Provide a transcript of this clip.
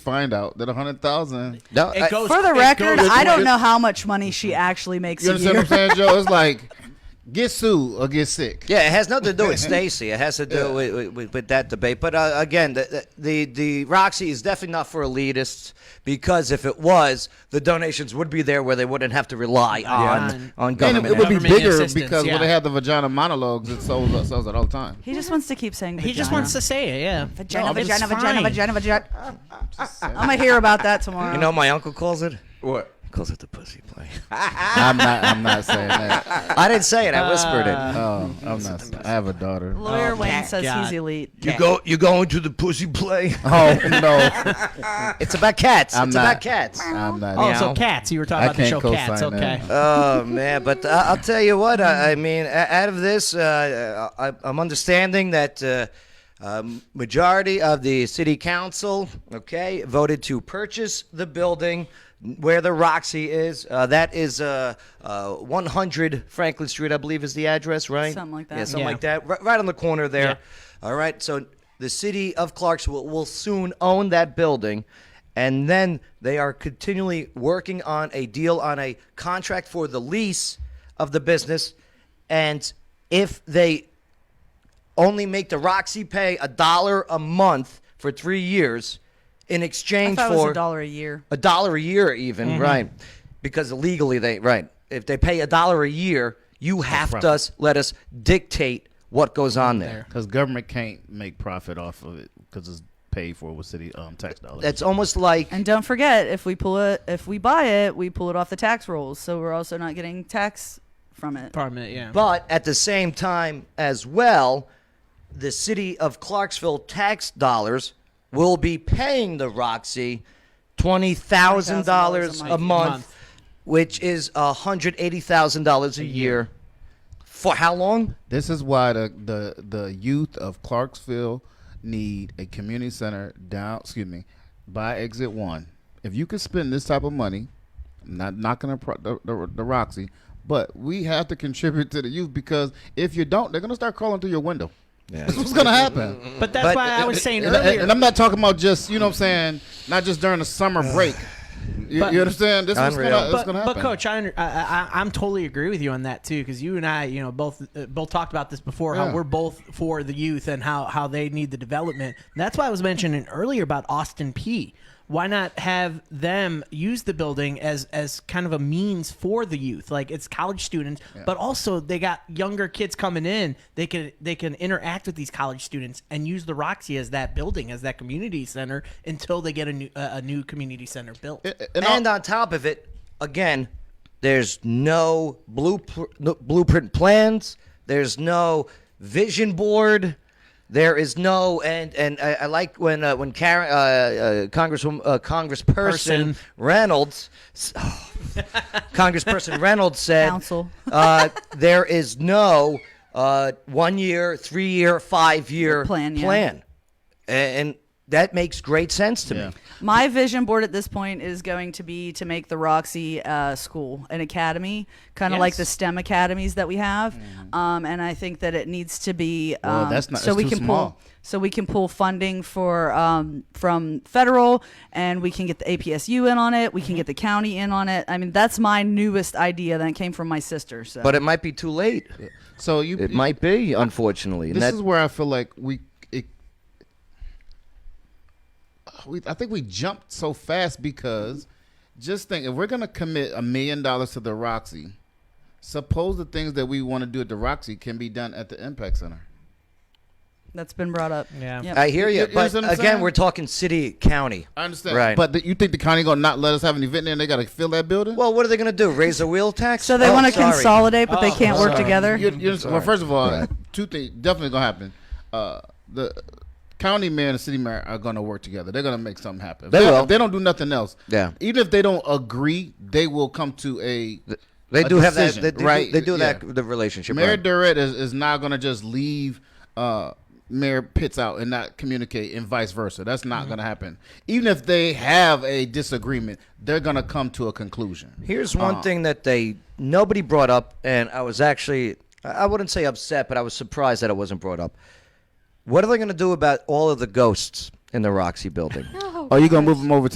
find out that a hundred thousand. No, It I- goes- For the it record, goes- I don't know how much money she actually makes You a understand what year. I'm saying, Joe? It's like get sued or get sick. Yeah, it has nothing to do with Stacy. It has to do with, with, with that debate. But uh, again, the, the the Roxy is definitely not for elitists because if it was, the donations would be there where they wouldn't have to rely on on And government. it, it would be Government bigger assistance, because yeah. when they have the vagina monologues, it sells, it sells it all the time. He just wants to keep saying. He just wants to say it, yeah. Vagina, No, but it's vagina, vagina, fine. vagina, vagina, I'm gonna hear about that tomorrow. you know, what my uncle calls it What? calls it the pussy play. I'm not. I'm not saying that. I didn't say it. I whispered it. Oh, I'm not. saying- I have a daughter. Lawyer Wayne says Oh God. he's elite. You go. You going to the pussy play? Oh no, It's about cats. I'm it's not. about cats. I'm not. Oh, Yeah. so cats. You were talking I about the can't show Cats. co-sign Okay. that. oh man but I i'll tell you what i, I mean a- out of this uh, I, i'm understanding that uh, um, majority of the city council okay voted to purchase the building where the roxy is uh, that is uh, uh, 100 franklin street i believe is the address right Something like that. yeah something Yeah. like that right, right on the corner there Yeah. all right so the city of clarksville will soon own that building and then they are continually working on a deal on a contract for the lease of the business and if they only make the roxy pay a dollar a month for three years in I exchange thought it was for a dollar a year. a dollar a year even right because legally they right if they pay a dollar a year you have to us, let us dictate what goes on there Because government can't make profit off of it because it's paid for with city um, tax dollars. that's almost like And don't forget, if we pull it, if we buy it, we pull it off the tax rolls, so we're also not getting tax from it. Apartment, yeah. But at the same time, as well, the city of Clarksville tax dollars will be paying the Roxy twenty thousand dollars a $20,000 a month, month. which is hundred eighty thousand dollars a year. For how long? This is why the, the the youth of Clarksville need a community center down. Excuse me, by exit one. If you could spend this type of money, I'm not knocking the, pro- the, the the Roxy, but we have to contribute to the youth because if you don't, they're gonna start crawling through your window. That's what's gonna happen. But that's But- why I was saying And, and- earlier. and I'm not talking about just you know what I'm saying, not just during the summer break. You, you understand? This is gonna, Unreal. this but, gonna but happen. coach, I, under- I, I I'm totally agree with you on that too, because you and I, you know, both uh, both talked about this before. Yeah. How we're both for the youth and how how they need the development. And that's why I was mentioning earlier about Austin P. Why not have them use the building as as kind of a means for the youth? Like it's college students, but also they got younger kids coming in. They can they can interact with these college students and use the Roxy as that building as that community center until they get a new uh, a new community center built. and, and and on top of it, again, there's no blueprint, no blueprint plans. There's no vision board. There is no and and I, I like when uh, when Karen uh, uh, Congresswoman uh, Congressperson Person. Reynolds, oh, Congressperson Reynolds said, Counsel. uh, there is no uh, one year, three year, five year Plan, yeah. and, and that makes great sense to me. My vision board at this point is going to be to make the Roxy uh, school an academy, kind of like Yes. the STEM academies that we have. Um, and I think that it needs to be um, Mm. Well, that's not- so it's we too can small. pull so we can pull funding for um, from federal, and we can get the APSU in on it. We Mm-hmm. can get the county in on it. I mean, that's my newest idea that came from my sister. So. But it might be too late. so you It you- might be, unfortunately. And this that- is where I feel like we, it, uh, we, I think we jumped so fast because just think if we're gonna commit a million dollars to the Roxy, suppose the things that we want to do at the Roxy can be done at the Impact Center. that's been brought up. Yeah. Yep. I hear You- you, you know but what I'm again, saying? we're talking city, county. I understand, Right. But the, you think the county gonna not let us have an event there? and They gotta fill that building? Well, what are they going to do? Raise the wheel tax? so they Oh, want to sorry. consolidate, but they can't work Mm-hmm. sorry. together. You- you- well, first of all, two things definitely gonna happen. Uh, the county mayor and the city mayor are gonna work together. They're gonna make something happen. If They will. If they don't do nothing else. Yeah. Even if they don't agree, they will come to a. They a do have decision, that. They do, right? They do Yeah. that. The relationship. Mayor right. Durrett is, is not gonna just leave uh, Mayor Pitts out and not communicate, and vice versa. That's Mm-hmm. not gonna happen. Even if they have a disagreement, they're gonna come to a conclusion. Here's one Uh-huh. thing that they nobody brought up, and I was actually I I wouldn't say upset, but I was surprised that it wasn't brought up. What are they going to do about all of the ghosts in the Roxy building? Oh Oh, you gonna move them over